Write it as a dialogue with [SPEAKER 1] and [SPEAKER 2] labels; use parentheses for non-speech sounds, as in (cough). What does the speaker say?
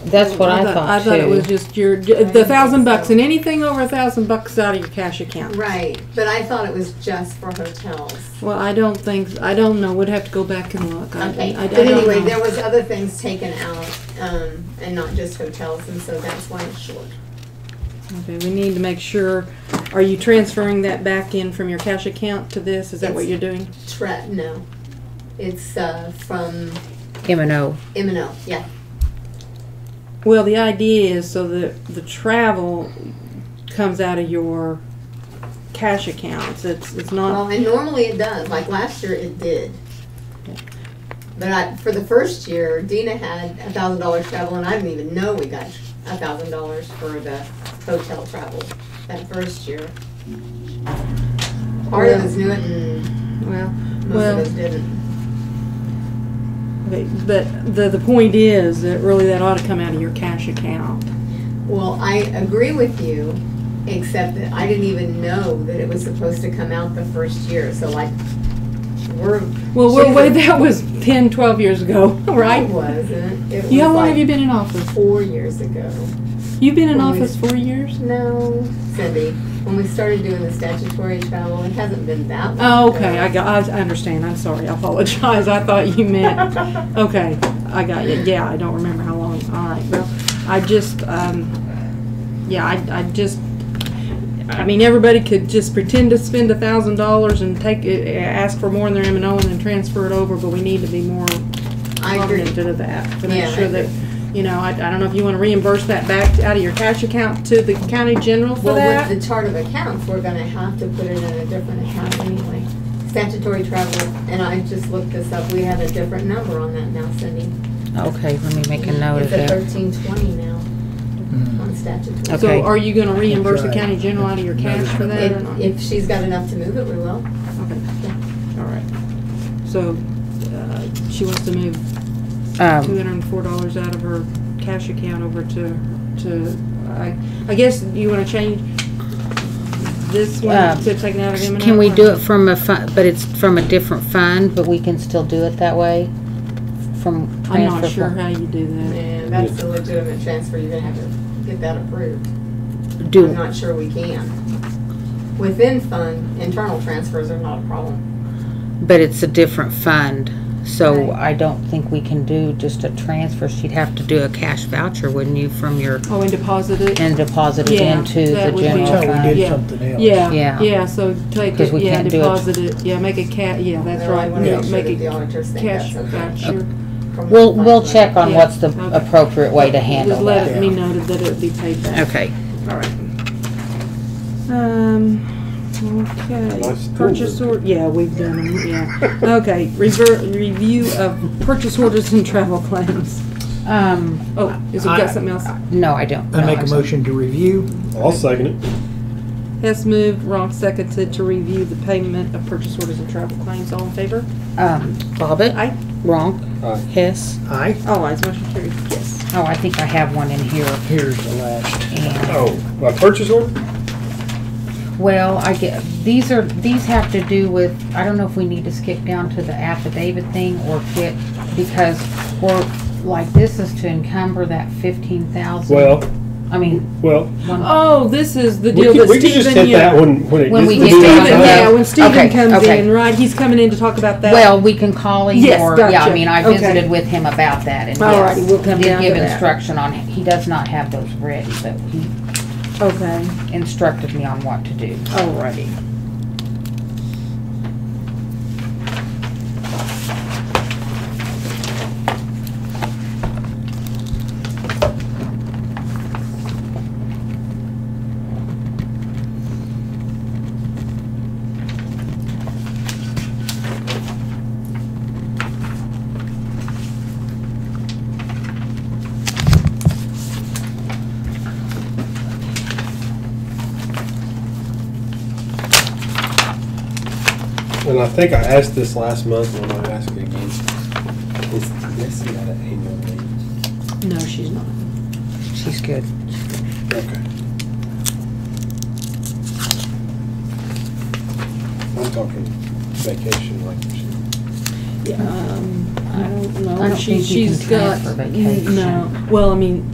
[SPEAKER 1] That's what I
[SPEAKER 2] I
[SPEAKER 1] thought
[SPEAKER 2] thought it was
[SPEAKER 1] too.
[SPEAKER 2] just your, the thousand bucks and anything over a thousand bucks out of your cash account.
[SPEAKER 3] Right, but I thought it was just for hotels.
[SPEAKER 2] Well, I don't think, I don't know, would have to go back and look. I-
[SPEAKER 3] Okay,
[SPEAKER 2] I- I
[SPEAKER 3] but
[SPEAKER 2] don't
[SPEAKER 3] anyway,
[SPEAKER 2] know.
[SPEAKER 3] there was other things taken out, um, and not just hotels, and so that's why it's short.
[SPEAKER 2] Okay, we need to make sure, are you transferring that back in from your cash account to this? Is that what
[SPEAKER 3] It's-
[SPEAKER 2] you're doing?
[SPEAKER 3] Tre, no, it's, uh, from
[SPEAKER 1] M and O.
[SPEAKER 3] M and O, yeah.
[SPEAKER 2] Well, the idea is so that the travel comes out of your cash accounts. It's, it's
[SPEAKER 3] Well,
[SPEAKER 2] not,
[SPEAKER 3] and normally it does, like last year it did. But I, for the first year, Dina had a thousand dollars travel, and I didn't even know we got a thousand dollars for the hotel travel that first year. Part of us knew it and
[SPEAKER 2] well,
[SPEAKER 3] most of
[SPEAKER 2] well,
[SPEAKER 3] us didn't.
[SPEAKER 2] okay, but the, the point is that really that ought to come out of your cash account.
[SPEAKER 3] Well, I agree with you, except that I didn't even know that it was supposed to come out the first year, so like, we're.
[SPEAKER 2] Well, we're,
[SPEAKER 3] she's
[SPEAKER 2] way-
[SPEAKER 3] a-
[SPEAKER 2] that was 10, 12 years ago, (laughs)
[SPEAKER 3] It
[SPEAKER 2] right?
[SPEAKER 3] wasn't. It was
[SPEAKER 2] You, how long have you
[SPEAKER 3] like
[SPEAKER 2] been in office?
[SPEAKER 3] four years ago.
[SPEAKER 2] You've been in
[SPEAKER 3] Well, we-
[SPEAKER 2] office four years?
[SPEAKER 3] No, Cindy, when we started doing the statutory travel, it hasn't been that long.
[SPEAKER 2] Oh, okay,
[SPEAKER 3] ago.
[SPEAKER 2] I got, I understand, I'm sorry, I apologize, I thought you
[SPEAKER 3] (laughs)
[SPEAKER 2] meant, okay, I got you, yeah, I don't remember how long, all right, well, I just, um, yeah, I, I just, I mean, everybody could just pretend to spend a thousand dollars and take, it- eh, ask for more in their M and O and then transfer it over, but we need to be more
[SPEAKER 3] I agree.
[SPEAKER 2] cognizant of that, to
[SPEAKER 3] Yeah,
[SPEAKER 2] make
[SPEAKER 3] I
[SPEAKER 2] sure that, you know, I, I don't know if you wanna reimburse that back out of your cash account to the county general for
[SPEAKER 3] Well,
[SPEAKER 2] that?
[SPEAKER 3] with the chart of accounts, we're gonna have to put it in a different account anyway. Statutory travel, and I just looked this up, we have a different number on that now, Cindy.
[SPEAKER 1] Okay, let me make a note of
[SPEAKER 3] It's at
[SPEAKER 1] that.
[SPEAKER 3] thirteen twenty now,
[SPEAKER 2] Mm.
[SPEAKER 3] on statutory.
[SPEAKER 1] Okay.
[SPEAKER 2] So are you gonna reimburse the
[SPEAKER 4] right.
[SPEAKER 2] county general out of your cash for that or not?
[SPEAKER 3] If, if she's got enough to move it, we will.
[SPEAKER 2] Okay, all right. So, uh, she wants to move two
[SPEAKER 1] Um,
[SPEAKER 2] hundred and four dollars out of her cash account over to, to, I, I guess you wanna change this
[SPEAKER 1] Uh,
[SPEAKER 2] one to take it out of M and O?
[SPEAKER 1] can we do it from a fund, but it's from a different fund, but we can still do it that way? From transfer?
[SPEAKER 2] I'm not sure
[SPEAKER 1] fund?
[SPEAKER 2] how you do that.
[SPEAKER 3] And that's a legitimate transfer, you're gonna have to get that approved. I'm
[SPEAKER 1] Do,
[SPEAKER 3] not sure we can. Within fund, internal transfers are not a problem.
[SPEAKER 1] but it's a different fund, so
[SPEAKER 3] Right.
[SPEAKER 1] I don't think we can do just a transfer. She'd have to do a cash voucher, wouldn't you, from your,
[SPEAKER 2] Oh, and deposit it?
[SPEAKER 1] and deposit it
[SPEAKER 2] Yeah,
[SPEAKER 1] into the
[SPEAKER 2] that would be-
[SPEAKER 1] general
[SPEAKER 4] That's how we
[SPEAKER 1] fund?
[SPEAKER 4] did
[SPEAKER 2] Yeah.
[SPEAKER 4] something else.
[SPEAKER 2] Yeah,
[SPEAKER 1] Yeah.
[SPEAKER 2] yeah, so take
[SPEAKER 1] 'Cause
[SPEAKER 2] it,
[SPEAKER 1] we
[SPEAKER 2] yeah,
[SPEAKER 1] can't do it.
[SPEAKER 2] deposit it, yeah, make a ca, yeah, that's
[SPEAKER 3] Well, I
[SPEAKER 2] right,
[SPEAKER 3] wanna make sure
[SPEAKER 2] make
[SPEAKER 3] that the
[SPEAKER 2] a
[SPEAKER 3] auditors think
[SPEAKER 2] cash
[SPEAKER 3] that's okay.
[SPEAKER 2] voucher.
[SPEAKER 3] from the
[SPEAKER 1] We'll,
[SPEAKER 3] fund
[SPEAKER 1] we'll
[SPEAKER 3] money.
[SPEAKER 1] check on
[SPEAKER 2] Yeah,
[SPEAKER 1] what's the
[SPEAKER 2] okay.
[SPEAKER 1] appropriate way to handle
[SPEAKER 2] Just let
[SPEAKER 1] that.
[SPEAKER 2] it be noted that it would be paid back.
[SPEAKER 1] Okay.
[SPEAKER 2] All right. Um, okay,
[SPEAKER 5] Nice
[SPEAKER 2] purchase
[SPEAKER 5] tool.
[SPEAKER 2] order, yeah, we've done them, yeah. Okay, rever, review of purchase orders and travel claims.
[SPEAKER 1] Um,
[SPEAKER 2] Oh, is it
[SPEAKER 4] I-
[SPEAKER 2] got something else?
[SPEAKER 1] no, I don't.
[SPEAKER 4] I
[SPEAKER 1] No,
[SPEAKER 4] make
[SPEAKER 1] I'm
[SPEAKER 4] a
[SPEAKER 1] sorry.
[SPEAKER 4] motion to review.
[SPEAKER 5] I'll second it.
[SPEAKER 2] Hess moved, Ronk seconded to review the payment of purchase orders and travel claims, all in favor?
[SPEAKER 1] Um, Bobbit?
[SPEAKER 2] Aye.
[SPEAKER 1] Wrong.
[SPEAKER 5] Aye.
[SPEAKER 1] Hess?
[SPEAKER 4] Aye.
[SPEAKER 2] All ayes, motion carried, yes.
[SPEAKER 1] Oh, I think I have one in here.
[SPEAKER 4] Here's the last.
[SPEAKER 1] And,
[SPEAKER 5] Oh, my purchase order?
[SPEAKER 1] well, I get, these are, these have to do with, I don't know if we need to skip down to the affidavit thing or quit, because we're, like, this is to encumber that fifteen thousand.
[SPEAKER 5] Well,
[SPEAKER 1] I mean,
[SPEAKER 5] well,
[SPEAKER 1] one,
[SPEAKER 2] Oh, this is the
[SPEAKER 5] we
[SPEAKER 2] deal
[SPEAKER 5] can,
[SPEAKER 2] that
[SPEAKER 5] we can just
[SPEAKER 2] Stephen,
[SPEAKER 5] hit that
[SPEAKER 2] yeah.
[SPEAKER 5] when, when it
[SPEAKER 1] When
[SPEAKER 5] gets
[SPEAKER 1] we
[SPEAKER 5] to
[SPEAKER 1] get
[SPEAKER 5] be
[SPEAKER 1] to
[SPEAKER 2] Stephen,
[SPEAKER 1] that.
[SPEAKER 2] yeah,
[SPEAKER 5] time.
[SPEAKER 2] when Stephen
[SPEAKER 1] Okay,
[SPEAKER 2] comes
[SPEAKER 1] okay.
[SPEAKER 2] in, right, he's coming in to talk about that.
[SPEAKER 1] well, we can call him
[SPEAKER 2] Yes,
[SPEAKER 1] or, yeah,
[SPEAKER 2] gotcha.
[SPEAKER 1] I mean, I
[SPEAKER 2] Okay.
[SPEAKER 1] visited with him about that and
[SPEAKER 2] All righty,
[SPEAKER 1] yes,
[SPEAKER 2] we'll come down
[SPEAKER 1] did
[SPEAKER 2] to
[SPEAKER 1] give
[SPEAKER 2] that.
[SPEAKER 1] instruction on, it. he does not have those ready, but he
[SPEAKER 2] Okay,
[SPEAKER 1] instructed me on what to do.
[SPEAKER 2] all righty.
[SPEAKER 5] And I think I asked this last month, and I ask it again. Is Missy out of annual leave?
[SPEAKER 2] No, she's not.
[SPEAKER 1] She's good.
[SPEAKER 5] Okay. I'm talking vacation like she.
[SPEAKER 2] Um, I don't
[SPEAKER 1] I
[SPEAKER 2] know.
[SPEAKER 1] don't
[SPEAKER 2] She,
[SPEAKER 1] think you can
[SPEAKER 2] she's got,
[SPEAKER 1] transfer vacation.
[SPEAKER 2] no, well, I mean,